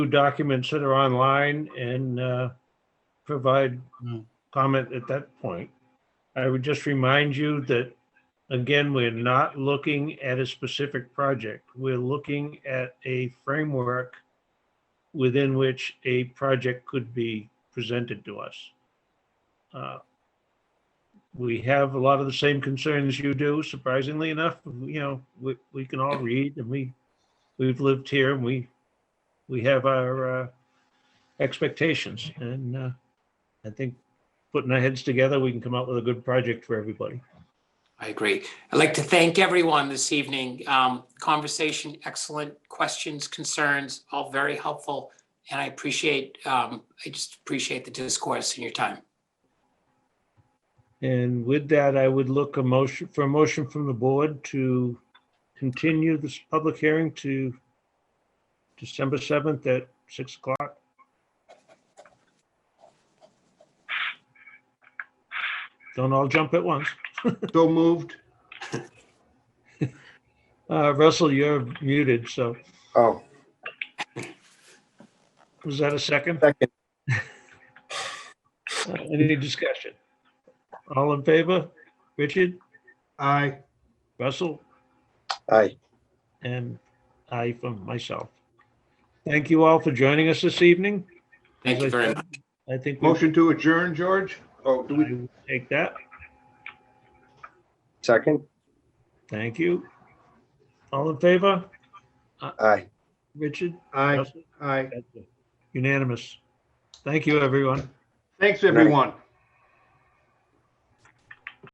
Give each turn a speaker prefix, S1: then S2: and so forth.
S1: documents that are online and uh, provide
S2: Mm.
S1: comment at that point. I would just remind you that, again, we're not looking at a specific project. We're looking at a framework within which a project could be presented to us. Uh, We have a lot of the same concerns you do, surprisingly enough, you know, we, we can all read and we, we've lived here and we, we have our uh, expectations. And uh, I think putting our heads together, we can come up with a good project for everybody.
S2: I agree. I'd like to thank everyone this evening. Um, Conversation, excellent questions, concerns, all very helpful. And I appreciate, um, I just appreciate the discourse and your time.
S1: And with that, I would look a motion, for a motion from the board to continue this public hearing to December 7th at 6 o'clock. Don't all jump at once.
S3: So moved.
S1: Uh, Russell, you're muted, so
S3: Oh,
S1: was that a second?
S3: second.
S1: Uh, Any discussion? All in favor? Richard,
S3: Aye.
S1: Russell?
S3: Aye.
S1: and I from myself. Thank you all for joining us this evening.
S2: Thank you
S1: As I
S2: very
S1: said,
S2: much.
S1: I think we
S3: Motion to adjourn, George? Oh, do we?
S1: should take that.
S3: Second.
S1: Thank you. All in favor?
S3: Aye.
S1: Richard?
S3: Aye,
S1: Russell?
S3: aye.
S1: Unanimous. Thank you, everyone.
S3: Thanks, everyone.